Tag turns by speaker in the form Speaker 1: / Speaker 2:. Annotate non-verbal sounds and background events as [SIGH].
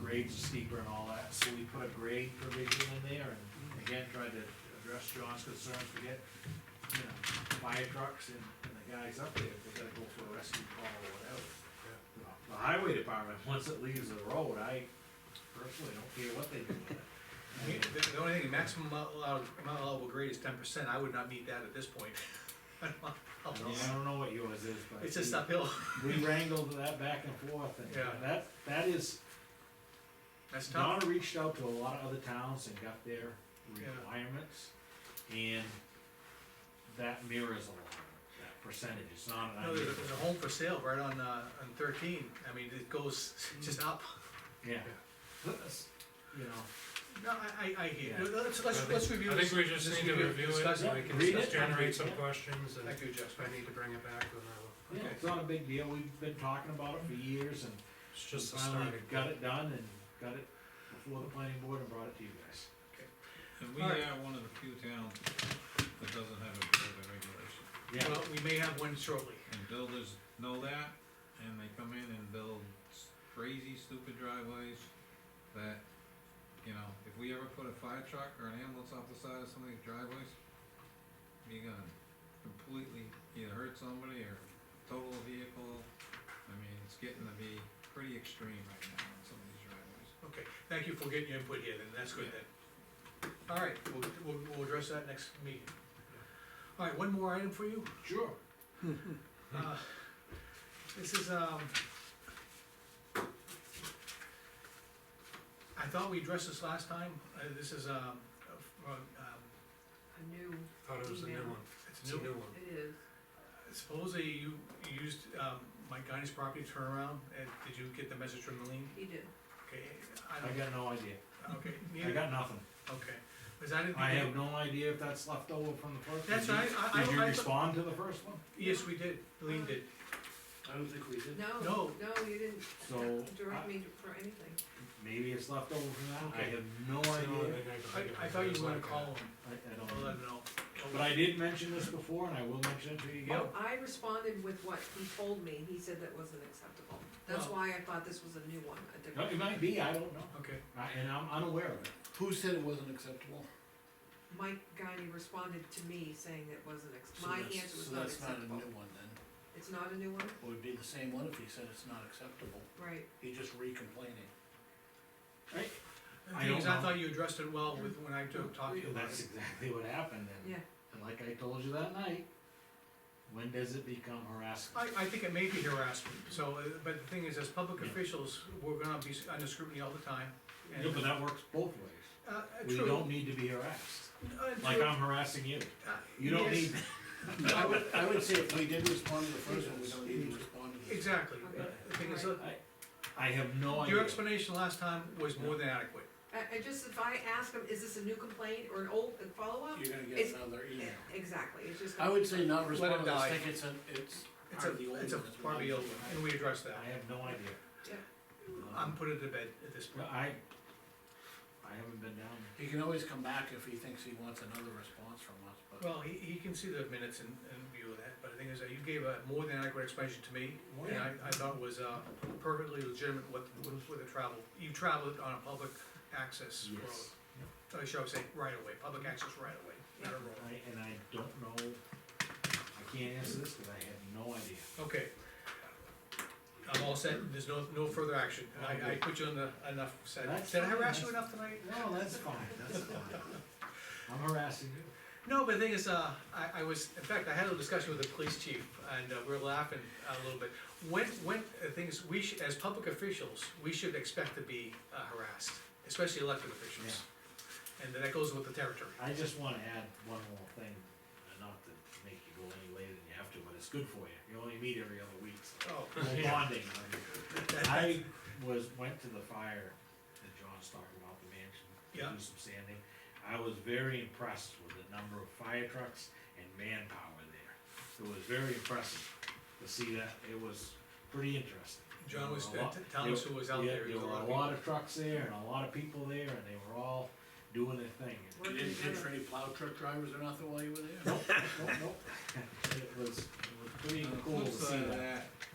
Speaker 1: grades are steeper and all that, so we put a grade provision in there, and again, tried to address John's concerns, we get, you know, fire trucks and, and the guys up there, if they gotta go for a rescue call or whatever. The highway department, once it leaves the road, I personally don't care what they do with it. I mean,
Speaker 2: The, the only thing, maximum allowed, amount allowable grade is ten percent, I would not meet that at this point. [LAUGHS] I don't want
Speaker 1: I don't-
Speaker 2: problems.
Speaker 1: I don't know what yours is, but.
Speaker 2: It's just uphill,
Speaker 1: We wrangled that back and forth, and
Speaker 2: Yeah.
Speaker 1: that, that is,
Speaker 2: that's tough.
Speaker 1: Donna reached out to a lot of other towns and got their
Speaker 2: Yeah.
Speaker 1: requirements, and that mirrors a lot, of that percentage, it's not an
Speaker 2: No, there's a,
Speaker 1: idea.
Speaker 2: there's a home for sale right on, uh, on thirteen, I mean, it goes just up.
Speaker 1: Yeah. That's- You know,
Speaker 2: No, I, I, I hear,
Speaker 1: Yeah.
Speaker 2: you. let's, let's, let's review
Speaker 3: I
Speaker 2: this.
Speaker 3: think we just
Speaker 2: let's
Speaker 3: need to review it,
Speaker 2: discuss
Speaker 3: so we can
Speaker 1: Read
Speaker 3: just
Speaker 1: it.
Speaker 3: generate some
Speaker 1: Yeah.
Speaker 3: questions, and
Speaker 2: Thank
Speaker 3: if
Speaker 2: you, Jeff,
Speaker 3: I need to bring it back, then I
Speaker 1: yeah,
Speaker 2: Okay.
Speaker 1: it's not a big deal, we've been talking about it for years, and
Speaker 3: will. It's just a
Speaker 1: finally
Speaker 3: starting.
Speaker 1: got it done, and got it before the planning board and brought it to you guys.
Speaker 4: And we
Speaker 2: All
Speaker 4: are
Speaker 2: right.
Speaker 4: one of the few towns that doesn't have a building regulation.
Speaker 1: Yeah.
Speaker 2: well, we may have one shortly,
Speaker 4: And builders know that, and they come in and build s- crazy stupid driveways that, you know, if we ever put a fire truck or an ambulance off the side of some of these driveways, you're gonna completely either hurt somebody or total a vehicle. I mean, it's getting to be pretty extreme right now on some of these driveways.
Speaker 2: okay, thank you for getting your input here, then, that's good then. All right, we'll, we'll, we'll address that next meeting. All right, one more item for you,
Speaker 1: Sure.
Speaker 2: Uh, This is, um. I thought we addressed this last time, uh, this is, um, uh, um,
Speaker 5: a new,
Speaker 3: Thought it was a new one,
Speaker 2: it's
Speaker 3: it's a
Speaker 2: new. uh,
Speaker 3: new one.
Speaker 5: it is,
Speaker 2: Supposedly you you used, um, Mike Guy's property turnaround, and did you get the message from Lean?
Speaker 5: he did.
Speaker 2: Okay,
Speaker 1: I
Speaker 2: I
Speaker 1: got no idea,
Speaker 2: don't, okay,
Speaker 1: I
Speaker 2: neither,
Speaker 1: got nothing,
Speaker 2: okay, cause I didn't.
Speaker 1: I have no idea if that's left over from the first.
Speaker 2: That's right, I, I, I.
Speaker 1: Did you
Speaker 2: thought-
Speaker 1: respond to the first one?
Speaker 2: Yes, we did, Lean did,
Speaker 3: I don't think we did.
Speaker 5: No,
Speaker 2: No.
Speaker 5: no, you didn't
Speaker 1: So,
Speaker 5: direct
Speaker 1: I-
Speaker 5: me to- for anything.
Speaker 1: maybe it's left over from that, I
Speaker 3: Okay.
Speaker 1: have no
Speaker 3: It's the only
Speaker 1: idea,
Speaker 3: thing can think of.
Speaker 2: I, I thought you
Speaker 3: It's
Speaker 2: were gonna
Speaker 3: like a-
Speaker 2: call him,
Speaker 1: I, I
Speaker 2: I'll
Speaker 1: don't
Speaker 2: let
Speaker 1: know.
Speaker 2: him know.
Speaker 1: But I did mention this before, and I will mention it to you again.
Speaker 2: Yep.
Speaker 5: I responded with what he told me, and he said that wasn't acceptable. That's
Speaker 6: Oh.
Speaker 2: Well-
Speaker 5: why I thought this was a new one, a
Speaker 1: No,
Speaker 5: different.
Speaker 1: it might be, I don't know,
Speaker 2: Okay,
Speaker 1: I- and I'm unaware of it.
Speaker 6: Who said it wasn't acceptable?
Speaker 5: Mike Guyney responded to me saying that wasn't, ex-
Speaker 6: So
Speaker 5: my
Speaker 6: that's-
Speaker 5: answer was
Speaker 6: so
Speaker 5: not
Speaker 6: that's not a
Speaker 5: acceptable.
Speaker 6: new one then.
Speaker 5: It's not a new one?
Speaker 6: It would be the same one if he said it's not acceptable.
Speaker 5: Right,
Speaker 6: He just re-complaining.
Speaker 2: The
Speaker 1: I
Speaker 2: thing
Speaker 1: don't
Speaker 2: is, I
Speaker 1: know.
Speaker 2: thought you addressed it well with, when I took- talked to you about
Speaker 1: That's
Speaker 2: it.
Speaker 1: exactly what happened, and,
Speaker 5: yeah,
Speaker 1: and like I told you that night, when does it become harassment?
Speaker 2: I, I think it may be harassment, so, uh, but the thing is, as public
Speaker 1: Yeah.
Speaker 2: officials, we're gonna be under scrutiny all the time. and-
Speaker 1: Yeah, but that works both ways,
Speaker 2: Uh, uh,
Speaker 1: we
Speaker 2: true.
Speaker 1: don't need to be harassed,
Speaker 2: Uh,
Speaker 1: like
Speaker 2: true.
Speaker 1: I'm harassing you,
Speaker 2: Uh,
Speaker 1: you don't
Speaker 2: yes,
Speaker 1: need,
Speaker 6: I would, I would say if we did respond to the first one, we don't need to respond to this.
Speaker 2: Exactly,
Speaker 5: Okay.
Speaker 2: Uh, the thing is,
Speaker 5: Right.
Speaker 2: uh,
Speaker 1: I, I have no idea.
Speaker 2: your explanation last time was more than adequate.
Speaker 5: I, I just, if I ask him, is this a new complaint or an old, a follow-up?
Speaker 6: You're gonna
Speaker 5: It's-
Speaker 6: get another email.
Speaker 5: Exactly, it's just.
Speaker 6: I would say not
Speaker 2: Let it
Speaker 6: respond, I
Speaker 2: die.
Speaker 6: think it's an, it's
Speaker 2: It's
Speaker 6: part of the
Speaker 2: a,
Speaker 6: old one.
Speaker 2: it's a
Speaker 6: it's
Speaker 2: part of the
Speaker 6: not-
Speaker 2: old one, and we addressed
Speaker 1: I
Speaker 2: that.
Speaker 1: have no idea,
Speaker 2: I'm putting it to bed at this
Speaker 1: No,
Speaker 2: point.
Speaker 1: I, I haven't been down there.
Speaker 6: He can always come back if he thinks he wants another response from us, but
Speaker 2: Well, he, he can see the minutes and, and view of that, but the thing is, that you gave a more than adequate explanation to me,
Speaker 1: More
Speaker 2: and I,
Speaker 1: than-
Speaker 2: I thought was, uh, perfectly legitimate what, with the travel. You traveled on a public access road.
Speaker 1: Yes.
Speaker 2: I should I say right away, public access right away, not a road.
Speaker 1: I, and I don't know, I can't answer this, cause I have no idea.
Speaker 2: Okay. I'm all set, there's no, no further action, And I, I put you on the, enough, said,
Speaker 1: That's
Speaker 2: did I
Speaker 1: fine,
Speaker 2: harass you
Speaker 1: that's-
Speaker 2: enough tonight?
Speaker 1: No, that's fine, [LAUGHS] that's fine. I'm harassing you.
Speaker 2: No, but the thing is, uh, I, I was, in fact, I had a discussion with the police chief, and uh, we were laughing a little bit. When, when, the thing is, we should, as public officials, we should expect to be uh, harassed, especially elected officials. And that goes with the territory.
Speaker 1: I just wanna add one more thing, uh, not to make you go any later than you have to, but it's good for you. You only meet every other week, so.
Speaker 2: [LAUGHS] Oh,
Speaker 1: We're bonding. I was, went to the fire that John's talking about, the mansion,
Speaker 2: Yeah.
Speaker 1: to do some sanding. I was very impressed with the number of fire trucks and manpower there. It was very impressive to see that. It was pretty interesting.
Speaker 2: John was,
Speaker 1: There were a lot-
Speaker 2: telling us who was out
Speaker 1: Yeah,
Speaker 2: there.
Speaker 1: There
Speaker 2: was
Speaker 1: were a
Speaker 2: of
Speaker 1: lot of trucks there and a lot of people there and they were all doing their
Speaker 2: [LAUGHS]
Speaker 1: thing.
Speaker 5: Working
Speaker 6: you didn't
Speaker 5: together.
Speaker 6: catch any plow truck drivers or nothing while you were there?
Speaker 1: Nope, nope, nope. [LAUGHS] It was, it was pretty
Speaker 4: On the
Speaker 1: cool to
Speaker 4: flip
Speaker 1: see
Speaker 4: side of
Speaker 1: that.
Speaker 4: that,